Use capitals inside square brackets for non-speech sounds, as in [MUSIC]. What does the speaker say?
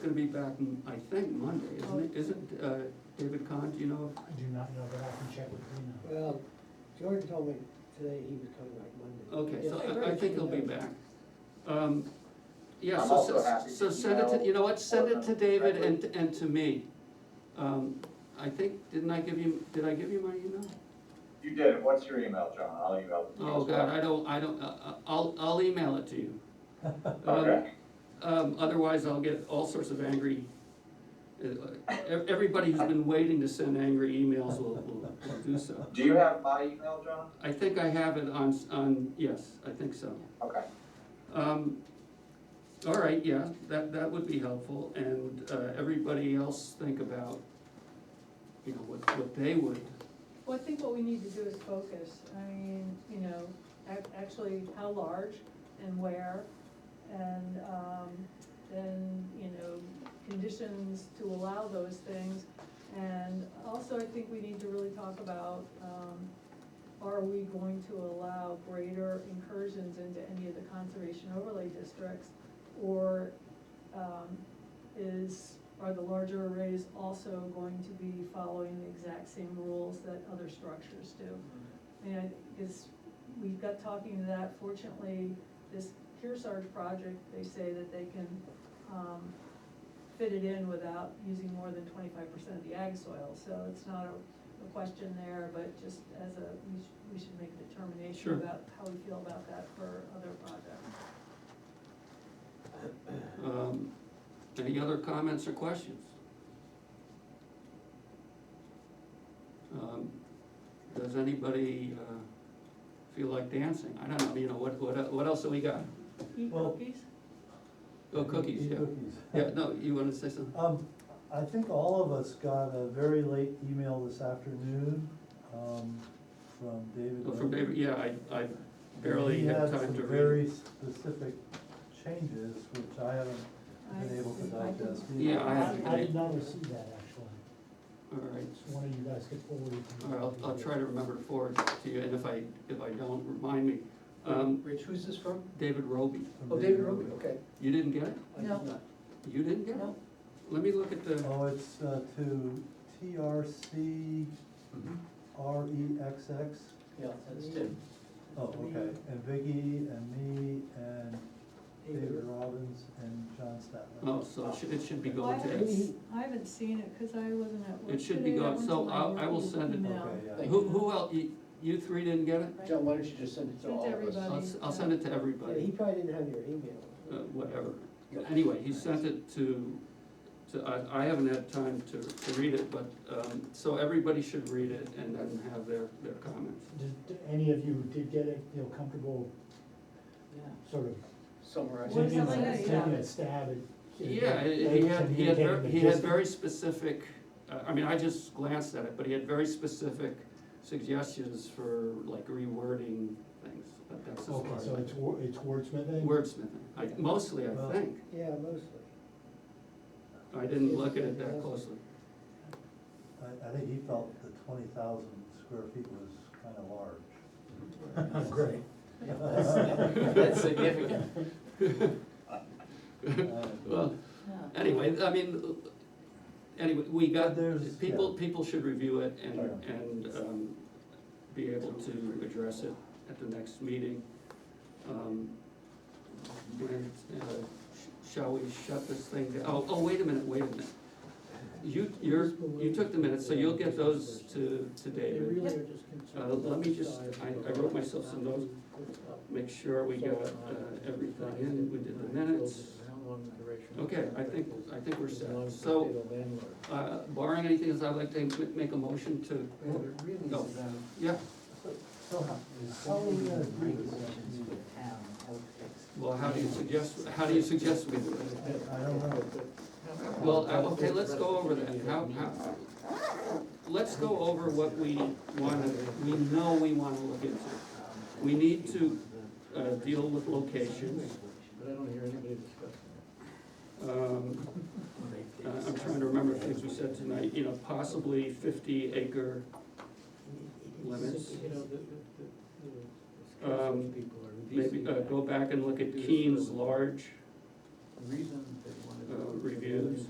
gonna be back, m- I think, Monday, isn't it? Isn't, uh, David Kahn, do you know? I do not know, but I can check with Dina. Well, Jordan told me today he was coming back Monday. Okay, so Yes, I, I think he'll be back. Um, yeah, I'm so, also so, happy so to send it to, email you know what, send it to Portland David and, directly. and to me. Um, I think, didn't I give you, did I give you my email? You did it. What's your email, John? I'll email you. Oh, as God, well. I don't, I don't, uh, uh, I'll, I'll email it to you. [LAUGHS] Um, Okay. Um, otherwise I'll get all sorts of angry, uh, ev- everybody who's been waiting to send angry emails will, will, will do so. Do you have my email, John? I think I have it on, s- on, yes, I think so. Okay. Um, all right, yeah, that, that would be helpful, and, uh, everybody else think about, you know, what, what they would, Well, I think what we need to do is focus, I mean, you know, ac- actually how large and where, and, um, then, you know, conditions to allow those things. And also, I think we need to really talk about, um, are we going to allow greater incursions into any of the conservation overlay districts? Or, um, is, are the larger arrays also going to be following the exact same rules that other structures do? Mm-hmm. And is, we got talking to that, fortunately, this Kearsarge project, they say that they can, um, fit it in without using more than twenty-five percent of the ag soil, so it's not a, a question there, but just as a, we should, we should make a Sure. determination about how we feel about that for other projects. um, any other comments or questions? Um, Does anybody, uh, feel like dancing? I don't know, you know, what, what, what else have we got? Eat Well- cookies? Oh, cookies, Eat yeah. Cookies. Yeah, no, you wanna say something? Um, I think all of us got a very late email this afternoon, um, from David. Oh, From Levy. David, yeah, I, I barely had time He had to some read. very specific changes, which I haven't been able to I- I- digest. either. Yeah, I haven't. I did not receive that, actually, All right. so one of you guys could forward it to All me. right, I'll, I'll try to remember to forward it to you, and if I, if I don't, remind me. Um, Rich, who's this from? David Roby, From Oh, David Roby, okay. you didn't get it? I did No. not. You didn't get it? No. Let me look at the, Oh, it's, uh, to TRC REXX. Yeah, that's Tim. E Oh, okay, and Vicky and me and David David. Robbins and John Statler. oh, so it should- it should be Well, I going haven't, today. s- I haven't seen it, cause I wasn't at work today. It should be I gone, went so to my I'll- I will work send it. email. Okay, yeah. Thank Who, who else, you, you three didn't get it? John, why don't you just send it to Send all of us? everybody. I'll, s- I'll send it to Yeah, he everybody, probably didn't have your email. uh, whatever. Anyway, he sent it to, to, I, I haven't had time to, to read it, but, um, so everybody should read it and then have their, their comments. Did, did any of you did get it, feel comfortable sort of Summarize. What does taking that a- say? taking a stab at? at- Yeah, at he had, he had, ver- communicating he the had gist? very specific, uh, I mean, I just glanced at it, but he had very specific suggestions for like rewording things, but that's as far Okay, as. so I- it's wor- it's wordsmithing? Wordsmithing, I, mostly, I think, Yeah, mostly. I didn't look at it that closely. I, I think he felt the twenty thousand square feet was kind of large. [LAUGHS] [LAUGHS] Oh, Great. That's significant. Well, anyway, I mean, anyway, we got, There's- people, yeah. people should review it and, Yeah. and, um, be able to address it at the next meeting. Um, when, uh, sh- Shall we shut this thing down? Oh, oh, wait a minute, wait a minute. You, you're, you took the minutes, so you'll get those to, to David. Uh, let me just, I, I wrote myself some notes, make sure we got, uh, everything in, we did the minutes. Okay, I think, I think we're set. So, uh, barring anything, else, I'd like to ma- make a motion to, No. yeah, Oh, So how, how are we gonna do this? well, how do you suggest, how do you suggest we do it? I don't know. Well, uh, okay, let's go over that, how, how, let's go over what we wanna, we know we wanna look into. We need to, uh, deal with locations, But I don't hear anybody discussing um, uh, I'm trying to remember things we said tonight, you know, possibly fifty acre limits. it. You know, the, the, the, the Um, people are. Maybe, uh, go back and look at Keene's large, The Reason they wanted uh, reviews.